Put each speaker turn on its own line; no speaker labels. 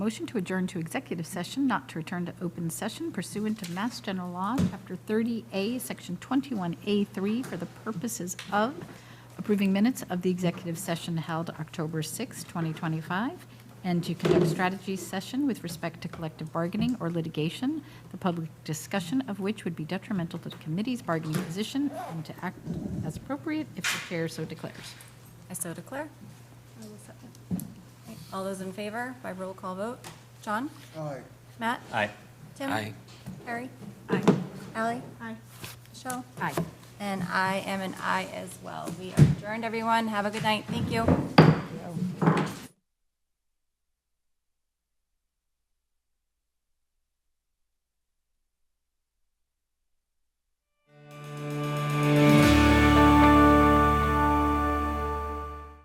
Motion to adjourn to executive session, not to return to open session pursuant to Mass General Law, Chapter 30A, Section 21A3, for the purposes of approving minutes of the executive session held October 6, 2025, and to conduct strategy session with respect to collective bargaining or litigation, the public discussion of which would be detrimental to the committee's bargaining position, and to act as appropriate if the chair so declares.
I so declare. Okay, All those in favor by roll call vote? John?
Aye.
Matt?
Aye.
Tim?
Aye.
Harry?
Aye.
Ally? Aye. Michelle?
Aye.
And I am an aye as well. We are adjourned, everyone. Have a good night. Thank you.